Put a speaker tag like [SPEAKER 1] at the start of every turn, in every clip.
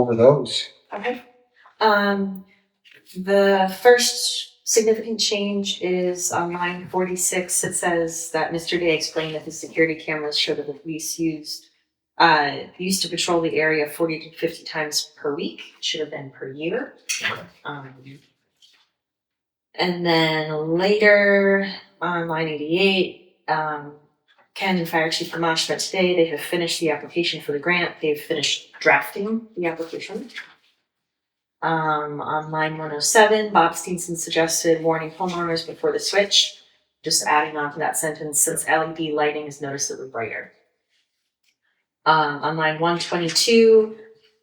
[SPEAKER 1] over those.
[SPEAKER 2] Okay. Um, the first significant change is on line forty-six. It says that Mr. Day explained that the security cameras show that the police used uh, used to patrol the area forty to fifty times per week. It Should have been per year. Um, and then later on line eighty-eight, um, Ken and Fire Chief Gamache met today. They have finished the application for the grant. They've finished drafting the application. Um, on line one oh seven, Bob Steenson suggested warning homeowners before the switch. Just adding on to that sentence, since LED lighting is noticeably brighter. Um, on line one twenty-two,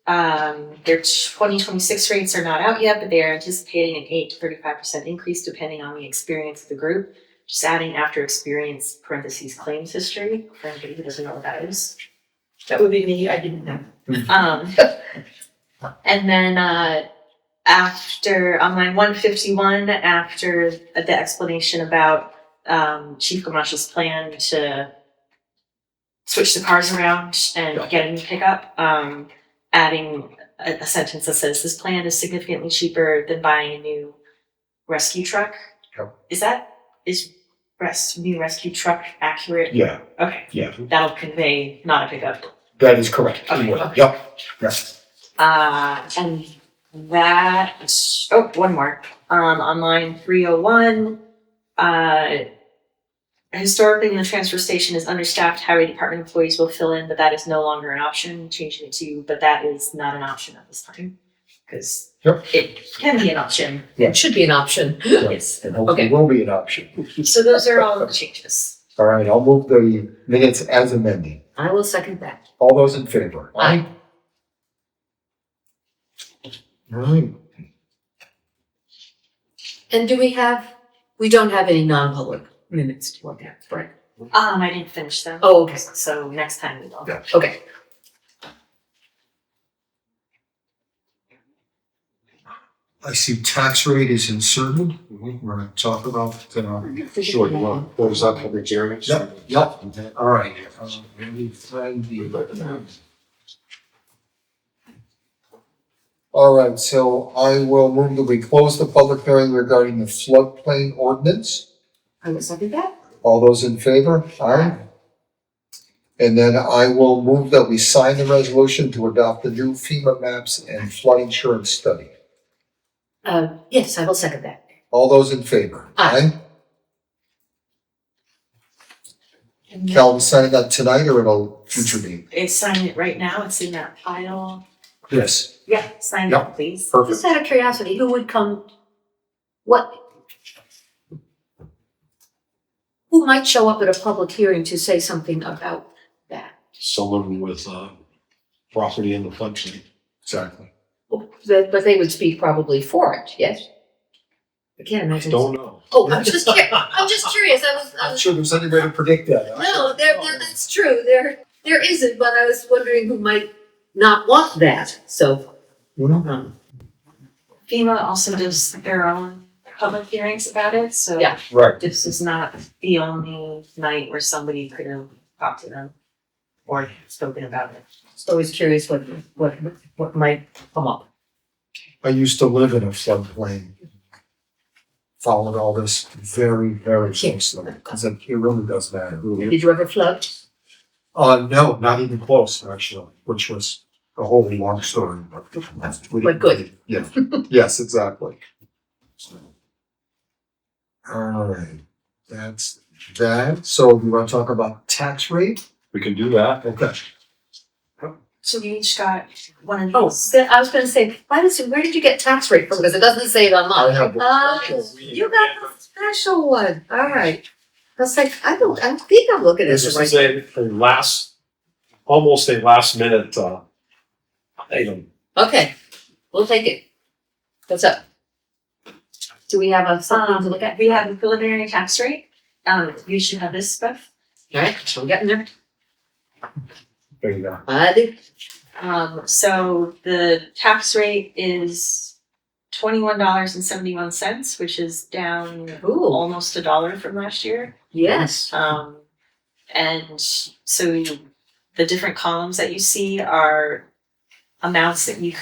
[SPEAKER 2] um, their twenty twenty-six rates are not out yet, but they are anticipating an eight to thirty-five percent increase depending on the experience of the group. Just adding after experience parentheses claims history, for anybody who doesn't know what that is.
[SPEAKER 3] That would be me, I didn't know.
[SPEAKER 2] Um, and then uh, after on line 151, after the explanation about um, Chief Gamache's plan to switch the cars around and
[SPEAKER 1] Yeah.
[SPEAKER 2] get a new pickup, um, adding a, a sentence that says this plan is significantly cheaper than buying a new rescue truck.
[SPEAKER 1] Yeah.
[SPEAKER 2] Is that is res- new rescue truck accurate?
[SPEAKER 1] Yeah,
[SPEAKER 2] Okay,
[SPEAKER 1] yeah,
[SPEAKER 2] that'll convey not a pickup.
[SPEAKER 1] that is correct.
[SPEAKER 2] Okay.
[SPEAKER 1] Yep, yes.
[SPEAKER 2] Uh, and that, oh, one more. Um, on line 301, uh, historically, when the transfer station is understaffed, highway department employees will fill in, but that is no longer an option, changing it to, but that is not an option at this time. Because
[SPEAKER 1] Yep.
[SPEAKER 2] it can be an option.
[SPEAKER 1] Yeah.
[SPEAKER 3] It should be an option.
[SPEAKER 2] Yes.
[SPEAKER 1] And hopefully
[SPEAKER 3] Okay.
[SPEAKER 1] will be an option.
[SPEAKER 2] So those are all the changes.
[SPEAKER 1] All right, I'll move the minutes as amended.
[SPEAKER 3] I will second that.
[SPEAKER 1] All those in favor?
[SPEAKER 3] Aye.
[SPEAKER 1] All right.
[SPEAKER 3] And do we have, we don't have any non-public minutes to look at, right?
[SPEAKER 2] Um, I didn't finish them.
[SPEAKER 3] Oh, okay,
[SPEAKER 2] So next time we will.
[SPEAKER 1] Yeah.
[SPEAKER 3] okay.
[SPEAKER 1] I see tax rate is inserted. We're gonna talk about, uh,
[SPEAKER 4] Sure, you want to close up public hearing?
[SPEAKER 1] yep, yep, all right. Uh, let me find the- All right, so I will move that we close the public hearing regarding the floodplain ordinance.
[SPEAKER 3] I will second that.
[SPEAKER 1] All those in favor? Aye. And then I will move that we sign the resolution to adopt the new FEMA maps and flood insurance study.
[SPEAKER 3] Um, yes, I will second that.
[SPEAKER 1] All those in favor?
[SPEAKER 3] Aye.
[SPEAKER 1] Aye? Calvin signing that tonight or at a future meeting?
[SPEAKER 2] It's signed right now. It's in that pile.
[SPEAKER 1] Yes.
[SPEAKER 2] Yeah, sign
[SPEAKER 1] Yep.
[SPEAKER 2] it, please.
[SPEAKER 1] Perfect.
[SPEAKER 3] Just out of curiosity, who would come? What? Who might show up at a public hearing to say something about that?
[SPEAKER 4] Someone with, uh, property in the floodplain.
[SPEAKER 1] Exactly.
[SPEAKER 3] Oh, But, but they would speak probably for it, yes? I can't imagine.
[SPEAKER 4] Don't know.
[SPEAKER 3] Oh, I'm just, curi- I'm just curious, I was, I
[SPEAKER 1] Not
[SPEAKER 3] was,
[SPEAKER 1] sure there's any way to predict that.
[SPEAKER 3] no, there, there, that's true, there, there isn't, but I was wondering who might not want that, so.
[SPEAKER 1] You know?
[SPEAKER 3] um,
[SPEAKER 2] FEMA also does their own public hearings about it, so
[SPEAKER 3] Yeah.
[SPEAKER 1] Right.
[SPEAKER 2] this is not the only night where somebody could have talked to them or spoken about it.
[SPEAKER 3] Just always curious what, what, what might come up.
[SPEAKER 1] I used to live in a floodplain. Followed all this very, very closely, because it it really does matter.
[SPEAKER 3] Did you ever flood?
[SPEAKER 1] Uh, no, not even close, actually, which was a whole long story, but. we
[SPEAKER 3] But good.
[SPEAKER 1] didn't- Yeah, yes, exactly. Alright, that's that. So we want to talk about tax rate?
[SPEAKER 4] We can do that.
[SPEAKER 1] Okay.
[SPEAKER 2] So we each got one of
[SPEAKER 3] Oh,
[SPEAKER 2] those.
[SPEAKER 3] so I was gonna say, why does, where did you get tax rate from? Because it doesn't say it on
[SPEAKER 1] I
[SPEAKER 3] mine.
[SPEAKER 1] have the
[SPEAKER 3] Oh,
[SPEAKER 1] special reading.
[SPEAKER 3] you got the special one, all right. I was like, I don't, I think I'm looking at
[SPEAKER 4] This
[SPEAKER 3] the
[SPEAKER 4] is
[SPEAKER 3] right.
[SPEAKER 4] a, a last, almost a last minute, uh, item.
[SPEAKER 3] Okay, we'll take it. What's up? Do we have a, something to look at?
[SPEAKER 2] Um, We have a preliminary tax rate. Um, you should have this, Beth.
[SPEAKER 3] All right, so we're getting there.
[SPEAKER 1] There you go.
[SPEAKER 3] I did,
[SPEAKER 2] Um, so the tax rate is twenty-one dollars and seventy-one cents, which is down
[SPEAKER 3] ooh,
[SPEAKER 2] almost a dollar from last year.
[SPEAKER 3] yes.
[SPEAKER 2] Um, and so you- the different columns that you see are amounts that you